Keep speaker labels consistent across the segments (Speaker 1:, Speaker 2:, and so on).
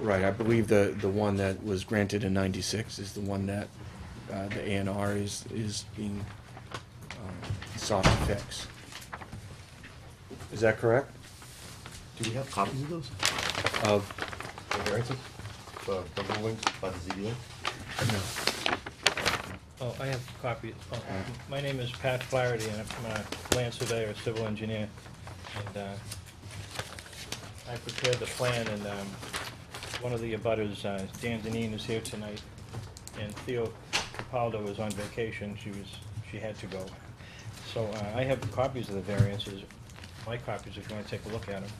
Speaker 1: Right, I believe the, the one that was granted in ninety-six is the one that, uh, the A and R is, is being, um, sought to fix. Is that correct?
Speaker 2: Do we have copies of those?
Speaker 1: Of,
Speaker 2: The variances? The, the rulings by the ZBA?
Speaker 1: no,
Speaker 3: Oh, I have copies. Oh, My name is Pat Flaherty, and I'm a land surveyor, civil engineer. And uh, I prepared the plan, and um, one of the abutters, uh, Dan Deneen, is here tonight. And Theo Capaldo was on vacation. She was, she had to go. So uh, I have copies of the variances, my copies, if you want to take a look at them.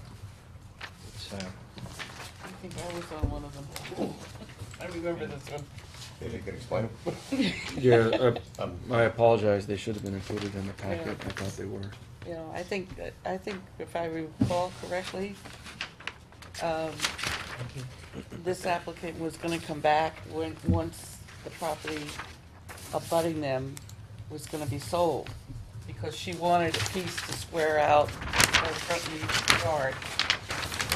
Speaker 3: It's, uh,
Speaker 4: I think I was on one of them. I remember this one.
Speaker 2: Maybe you can explain them?
Speaker 1: yeah, uh,
Speaker 2: Um,
Speaker 1: I apologize, they should have been included in the
Speaker 4: Yeah.
Speaker 1: packet, I thought they were.
Speaker 4: You know, I think, that- I think if I recall correctly, um, this applicant was gonna come back when, once the property abutting them was gonna be sold, because she wanted a piece to square out her front yard.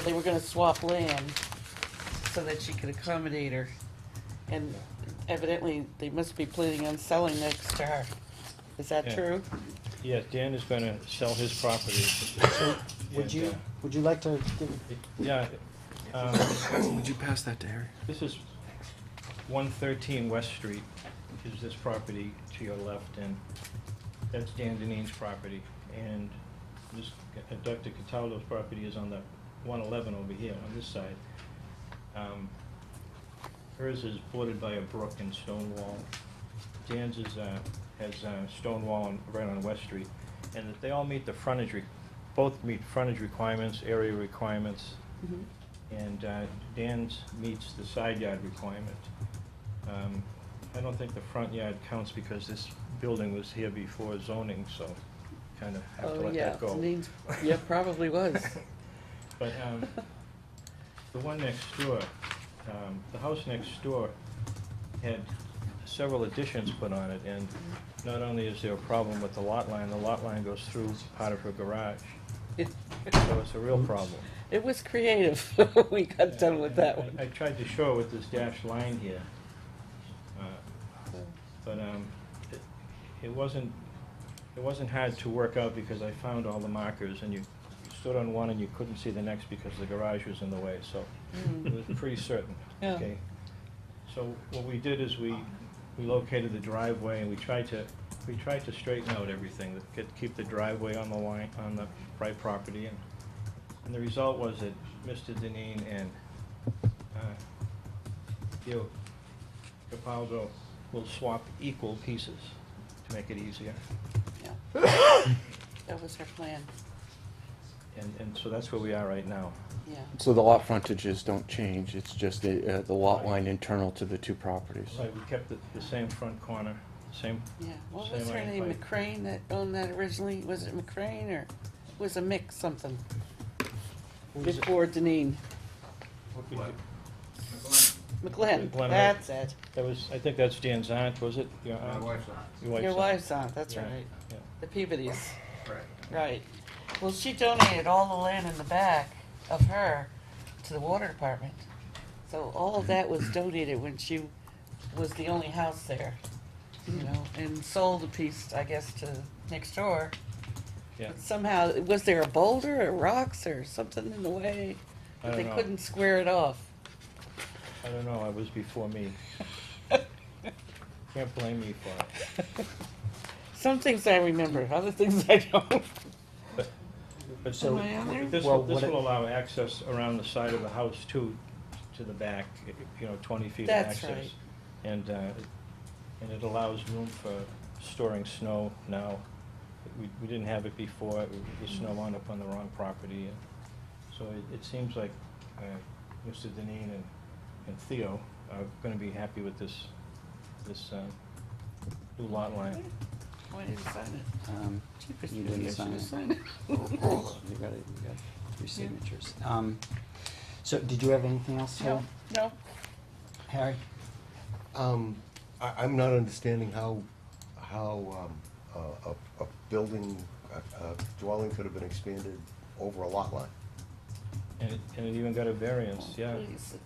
Speaker 4: They were gonna swap land so that she could accommodate her, and evidently, they must be planning on selling next to her. Is that
Speaker 3: Yeah.
Speaker 4: true?
Speaker 3: Yeah, Dan is going to sell his property.
Speaker 5: So,
Speaker 3: And,
Speaker 5: would you,
Speaker 3: uh,
Speaker 5: would you like to give,
Speaker 3: Yeah. um,
Speaker 1: Would you pass that to Harry?
Speaker 3: This is one thirteen West Street, is this property to your left, and that's Dan Deneen's property. And this, uh, Dr. Cataldo's property is on the one eleven over here, on this side. Um, Hers is bordered by a brook and stone wall. Dan's is, uh, has a stone wall on- right on West Street. And they all meet the frontage, re- both meet frontage requirements, area requirements.
Speaker 4: Mhm.
Speaker 3: And uh, Dan's meets the side yard requirement. Um, I don't think the front yard counts because this building was here before zoning, so kind of have to
Speaker 4: Oh,
Speaker 3: let
Speaker 4: yeah,
Speaker 3: that go.
Speaker 4: Denise, yeah, probably was.
Speaker 3: But um, the one next door, um, the house next door had several additions put on it, and not only is there a problem with the lot line, the lot line goes through part of her garage,
Speaker 4: It,
Speaker 3: so it's a real problem.
Speaker 4: it was creative when we got done with that
Speaker 3: And I I
Speaker 4: one.
Speaker 3: tried to show it with this dashed line here, uh, but um, it- it wasn't, it wasn't hard to work out because I found all the markers, and you stood on one and you couldn't see the next because the garage was in the way, so
Speaker 4: Mm.
Speaker 3: it was pretty certain,
Speaker 4: Yeah.
Speaker 3: okay? So what we did is we, we located the driveway, and we tried to, we tried to straighten out everything, that could keep the driveway on the line, on the right property, and and the result was that Mr. Deneen and uh, Gil Capaldo will swap equal pieces to make it easier.
Speaker 4: Yeah. That was her plan,
Speaker 3: And, and so that's where we are right now.
Speaker 4: yeah.
Speaker 1: So the lot frontages don't change, it's just the, uh, the lot line internal to the two properties.
Speaker 3: So we kept the, the same front corner, same,
Speaker 4: Yeah, what was
Speaker 3: Same
Speaker 4: her name,
Speaker 3: idea.
Speaker 4: McCrane that owned that originally, was it McCrane or it was a mix something?
Speaker 3: was it?
Speaker 4: Before Deneen, McLean,
Speaker 3: McGlenn, right.
Speaker 4: that's it,
Speaker 3: that was, I think that's Dan's aunt, was it? Your
Speaker 6: My
Speaker 3: aunt?
Speaker 6: wife's on.
Speaker 3: Your wife's
Speaker 4: your
Speaker 3: aunt.
Speaker 4: wife's aunt, that's
Speaker 3: Yeah,
Speaker 4: right,
Speaker 3: yeah.
Speaker 4: the Peabody's,
Speaker 6: Right.
Speaker 4: right. Well, she donated all the land in the back of her to the water department. So all of that was donated when she was the only house there, you know, and sold a piece, I guess, to next door.
Speaker 3: Yeah.
Speaker 4: But Somehow, was there a boulder or rocks or something in the way?
Speaker 3: I
Speaker 4: But they
Speaker 3: don't know.
Speaker 4: couldn't square it off.
Speaker 3: I don't know, it was before me. Can't blame me for it.
Speaker 4: Some things I remember, other things I don't.
Speaker 3: But so,
Speaker 4: Am I on there?
Speaker 3: this
Speaker 5: Well,
Speaker 3: will, this
Speaker 5: what it-
Speaker 3: will allow access around the side of the house too, to the back, you know, twenty feet of
Speaker 4: That's
Speaker 3: access.
Speaker 4: right.
Speaker 3: And, uh, and it allows room for storing snow now. We, we didn't have it before, It-
Speaker 4: Mm.
Speaker 3: the snow wound up on the wrong property. and So it, it seems like, uh, Mr. Deneen and, and Theo are gonna be happy with this, this, uh, new lot line.
Speaker 4: Why didn't you sign it?
Speaker 5: um,
Speaker 4: Jeepers,
Speaker 5: you
Speaker 4: maybe I
Speaker 5: didn't sign
Speaker 4: should've
Speaker 5: it?
Speaker 4: signed it.
Speaker 5: You got it, you got your signatures. Um, so, did you have anything else, Harry?
Speaker 4: No, no.
Speaker 5: Harry?
Speaker 2: Um, I, I'm not understanding how, how, um, a, a, a building, a, a dwelling could have been expanded over a lot line.
Speaker 3: And it, and it even got a variance, yeah.
Speaker 4: Please,